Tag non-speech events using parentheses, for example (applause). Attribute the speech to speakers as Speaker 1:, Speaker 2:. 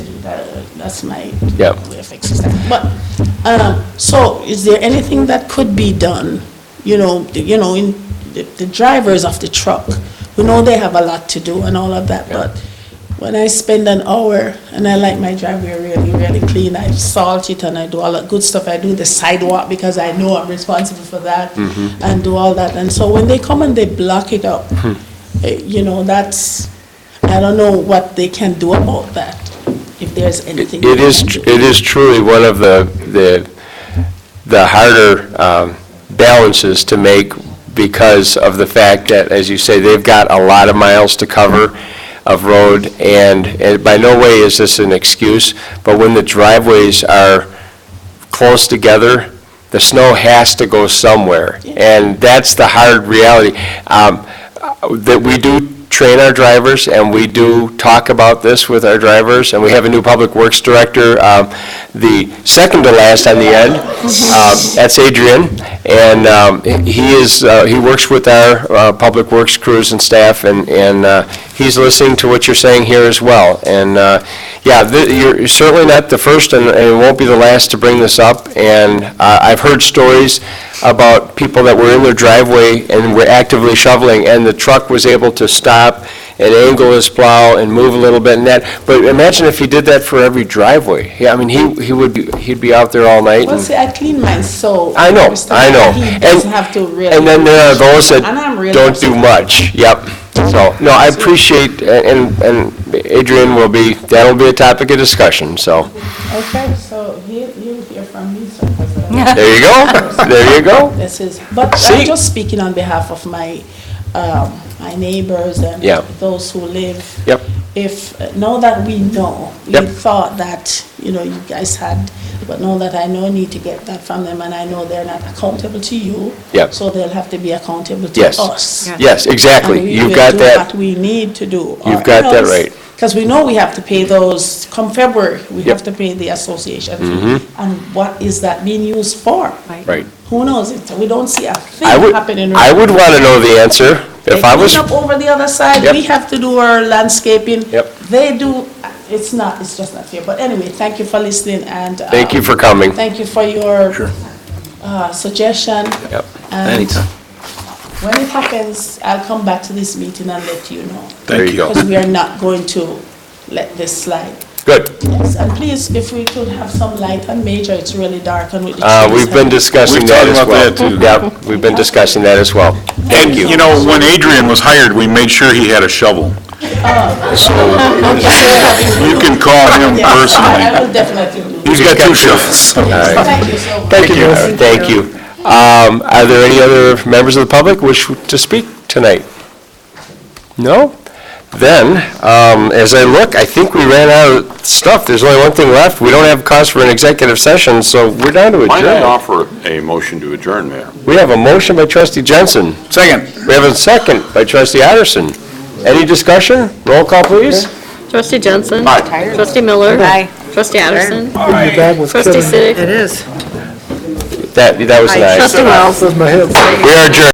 Speaker 1: That- That's my
Speaker 2: Yep.
Speaker 1: way of fixing that. But, um, so is there anything that could be done? You know, the- you know, in, the- the drivers of the truck, we know they have a lot to do and all of that,
Speaker 2: Yeah.
Speaker 1: but when I spend an hour and I like my driveway really, really clean, I salt it and I do all that good stuff. I do the sidewalk because I know I'm responsible for that
Speaker 2: Mm-hmm.
Speaker 1: and do all that. And so when they come and they block it up,
Speaker 2: Hmm.
Speaker 1: eh, you know, that's, I don't know what they can do about that, if there's anything.
Speaker 2: It
Speaker 1: they
Speaker 2: is,
Speaker 1: can
Speaker 2: tr-
Speaker 1: do.
Speaker 2: it is truly one of the, the, the harder um, balances to make because of the fact that, as you say, they've got a lot of miles to cover of road, and and by no way is this an excuse, but when the driveways are close together, the snow has to go somewhere. And that's the hard reality. Um, uh, That we do train our drivers, and we do talk about this with our drivers, and we have a new Public Works Director, um, the second to last on the end, um, that's Adrian, and um, he is, uh, he works with our uh, Public Works crews and staff, and and uh, he's listening to what you're saying here as well. And, uh, yeah, th- you're certainly not the first, and and it won't be the last to bring this up, and uh, I've heard stories about people that were in their driveway and were actively shoveling, and the truck was able to stop and angle his plow and move a little bit and that, but imagine if he did that for every driveway. Yeah, I mean, he he would, be he'd be out there all night.
Speaker 1: Well,
Speaker 2: and-
Speaker 1: see, I clean mine, so.
Speaker 2: I know, I know.
Speaker 1: He
Speaker 2: And-
Speaker 1: doesn't have to really.
Speaker 2: And then there are those that
Speaker 1: And I'm really
Speaker 2: don't do
Speaker 1: upset.
Speaker 2: much, yep. So, no, I appreciate, and and Adrian will be, that'll be a topic of discussion, so.
Speaker 1: Okay, so he, you'll hear from me, so.
Speaker 2: There
Speaker 1: (laughs)
Speaker 2: you go, there you go.
Speaker 1: This is, but
Speaker 2: See?
Speaker 1: I'm just speaking on behalf of my, um, my neighbors and
Speaker 2: Yeah.
Speaker 1: those who live.
Speaker 2: Yep.
Speaker 1: If, now that we know, we
Speaker 2: Yep.
Speaker 1: thought that, you know, you guys had, but now that I know, I need to get that from them, and I know they're not accountable to you.
Speaker 2: Yep.
Speaker 1: So they'll have to be accountable to
Speaker 2: Yes.
Speaker 1: us.
Speaker 2: Yes,
Speaker 1: And
Speaker 2: exactly,
Speaker 1: we
Speaker 2: you've
Speaker 1: will
Speaker 2: got
Speaker 1: do
Speaker 2: that,
Speaker 1: What we need to do.
Speaker 2: You've got that right.
Speaker 1: Because we know we have to pay those, come February, we
Speaker 2: Yep. Mm-hmm.
Speaker 1: have to pay the association fee. And what is that being used for?
Speaker 2: right.
Speaker 1: Who knows? It's- We don't see a thing
Speaker 2: I would,
Speaker 1: happening.
Speaker 2: I would want to know the answer, if I was,
Speaker 1: They clean up over the other side,
Speaker 2: Yep.
Speaker 1: we have to do our landscaping.
Speaker 2: Yep.
Speaker 1: They do, it's not, it's just not fair. But anyway, thank you for listening and.
Speaker 2: thank you
Speaker 1: um,
Speaker 2: for coming.
Speaker 1: Thank you for your uh, suggestion.
Speaker 2: Yep.
Speaker 1: And When it happens, I'll come back to this meeting and let you know.
Speaker 2: There you go.
Speaker 1: Because we are not going to let this slide.
Speaker 2: Good,
Speaker 1: Yes, and please, if we could have some light on Major, it's really dark and with the.
Speaker 2: Uh,
Speaker 1: trees
Speaker 2: we've been
Speaker 1: and-
Speaker 2: discussing
Speaker 3: We've
Speaker 2: that
Speaker 3: talked
Speaker 2: as
Speaker 3: about
Speaker 2: well.
Speaker 3: that, too.
Speaker 2: Yep, we've been discussing that as well.
Speaker 3: And, you know, when Adrian was hired, we made sure he had a shovel. So you can call him
Speaker 1: Yes, (laughs) I I
Speaker 3: personally.
Speaker 1: will definitely do.
Speaker 3: He's got two shovels.
Speaker 2: All right.
Speaker 1: Thank you so much.
Speaker 2: Thank you. Thank you. Um, Are there any other members of the public wish to speak tonight? No? Then, um, as I look, I think we ran out of stuff. There's only one thing left. We don't have cause for an executive session, so we're down to
Speaker 4: Why not
Speaker 2: adjourn.
Speaker 4: offer a motion to adjourn, Mayor?
Speaker 2: We have a motion by trustee Jensen.
Speaker 3: Second.
Speaker 2: We have a second by trustee Otterston. Any discussion? Roll call, please.
Speaker 5: Trustee Jensen.
Speaker 4: Aye.
Speaker 5: Trustee Miller. Aye. Trustee Addison. Trustee Siddick.
Speaker 6: It is.
Speaker 2: That, that was an aye.
Speaker 5: Trustee Wells.
Speaker 2: We are adjourned.